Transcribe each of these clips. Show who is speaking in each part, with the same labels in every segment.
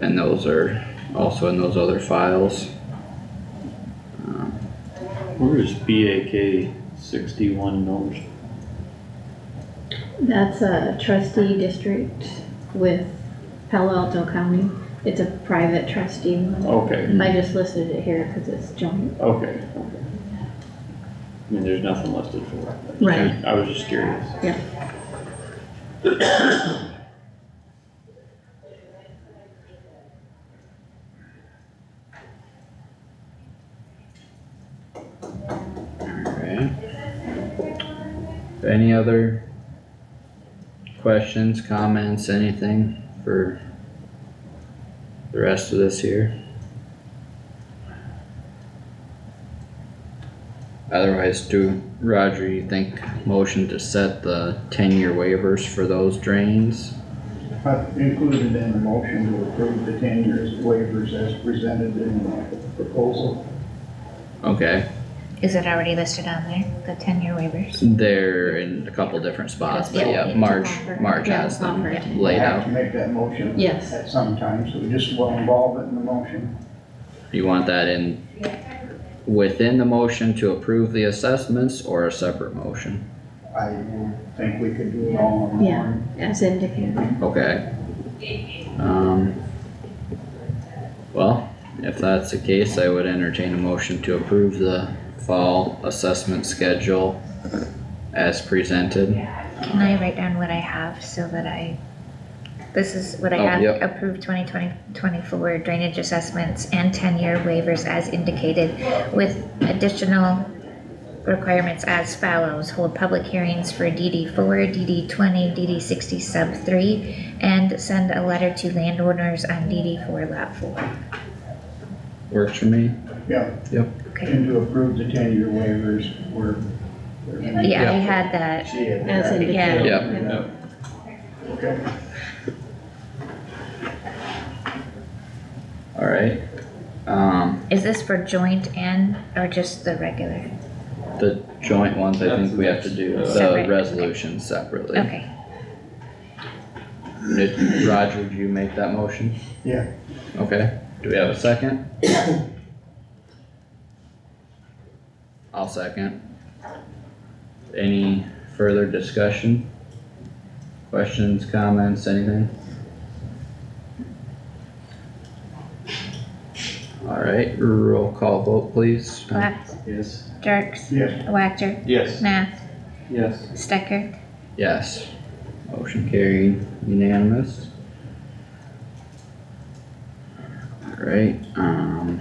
Speaker 1: And those are also in those other files.
Speaker 2: Where is BAK sixty-one North?
Speaker 3: That's a trustee district with Palo Alto County. It's a private trustee one.
Speaker 2: Okay,
Speaker 3: I just listed it here because it's joint.
Speaker 2: okay, okay. I mean, there's nothing listed for it.
Speaker 3: Right.
Speaker 2: I was just curious.
Speaker 3: Yeah.
Speaker 1: Alright. Any other questions, comments, anything for the rest of this here? Otherwise, do, Roger, you think motion to set the ten-year waivers for those drains?
Speaker 4: I've included in the motion to approve the ten years waivers as presented in the proposal.
Speaker 1: Okay,
Speaker 5: Is it already listed on there, the ten-year waivers?
Speaker 1: they're in a couple different spots, but
Speaker 5: Yeah.
Speaker 1: yeah, Marge, Marge
Speaker 3: Yeah,
Speaker 1: has them
Speaker 3: Concord.
Speaker 5: Yeah.
Speaker 4: I
Speaker 1: laid
Speaker 4: have
Speaker 1: out.
Speaker 4: to make that motion.
Speaker 3: Yes.
Speaker 4: At some time, so we just will involve it in the motion.
Speaker 1: You want that in within the motion to approve the assessments or a separate motion?
Speaker 4: I would think we could do it all in
Speaker 3: Yeah.
Speaker 4: one.
Speaker 3: As indicated.
Speaker 1: Okay. Um. Well, if that's the case, I would entertain a motion to approve the fall assessment schedule as presented.
Speaker 5: Can I write down what I have so that I, this is what I
Speaker 1: Oh,
Speaker 5: have,
Speaker 1: yep.
Speaker 5: approved 2020 24 drainage assessments and ten-year waivers as indicated with additional requirements as follows, hold public hearings for DD four, DD twenty, DD sixty sub three, and send a letter to landowners on DD four lot four.
Speaker 1: Works for me?
Speaker 4: Yeah,
Speaker 5: Okay,
Speaker 4: and to approve the ten year waivers were.
Speaker 5: yeah, we had that,
Speaker 4: See it.
Speaker 3: As indicated.
Speaker 1: Yeah.
Speaker 4: Okay.
Speaker 1: Alright. Um,
Speaker 5: is this for joint and, or just the regular?
Speaker 1: the joint ones, I think we have to do the
Speaker 5: Separate.
Speaker 1: resolution separately.
Speaker 5: Okay.
Speaker 1: Did- Roger, do you make that motion?
Speaker 4: Yeah.
Speaker 1: Okay, do we have a second? I'll second. Any further discussion? Questions, comments, anything? Alright, roll call vote please.
Speaker 5: Plath,
Speaker 2: Yes.
Speaker 5: Jerks,
Speaker 4: Yes,
Speaker 5: Whacker,
Speaker 2: Yes.
Speaker 5: Nath,
Speaker 2: Yes.
Speaker 5: Stecker.
Speaker 1: Yes. Motion carried unanimous. Alright, um.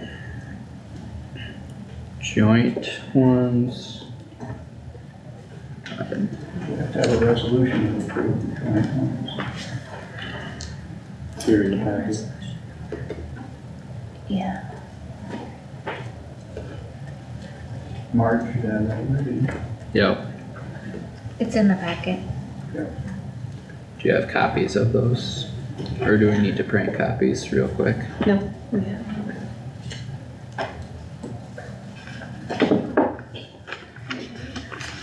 Speaker 1: Joint ones.
Speaker 4: we have to have a resolution to approve the twenty twenties.
Speaker 2: Here in the packet.
Speaker 5: Yeah.
Speaker 4: March, then, already.
Speaker 1: Yep,
Speaker 5: It's in the packet.
Speaker 1: do you have copies of those? Or do we need to print copies real quick?
Speaker 3: No, we have.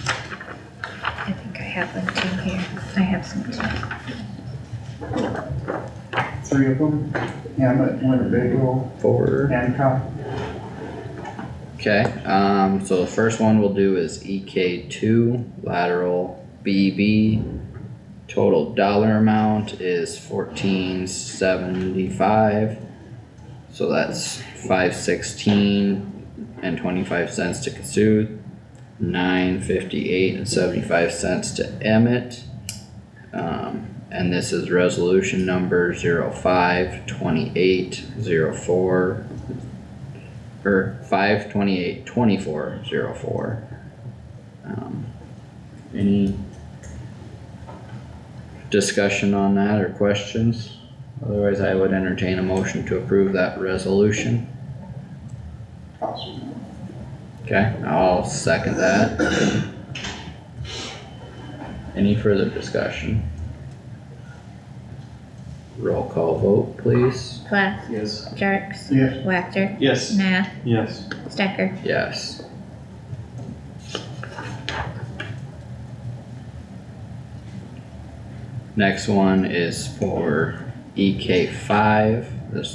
Speaker 5: I think I have one too here. I have some too.
Speaker 4: three of them, uh, Hammett, Winnebago,
Speaker 1: Four.
Speaker 4: Hancock.
Speaker 1: Okay, um, so the first one we'll do is EK two lateral BB. Total dollar amount is fourteen seventy-five. So that's five sixteen and twenty-five cents to Kasuth. Nine fifty-eight and seventy-five cents to Emmett. Um, and this is resolution number zero five twenty-eight zero four or five twenty-eight, twenty-four, zero four. Um, Any discussion on that or questions? Otherwise, I would entertain a motion to approve that resolution.
Speaker 4: Awesome.
Speaker 1: Okay, I'll second that. Any further discussion? Roll call vote, please.
Speaker 5: Plath,
Speaker 2: Yes.
Speaker 5: Jerks,
Speaker 4: Yes,
Speaker 5: Whacker,
Speaker 2: Yes.
Speaker 5: Nath,
Speaker 2: Yes.
Speaker 5: Stecker.
Speaker 1: Yes. Next one is for EK E five.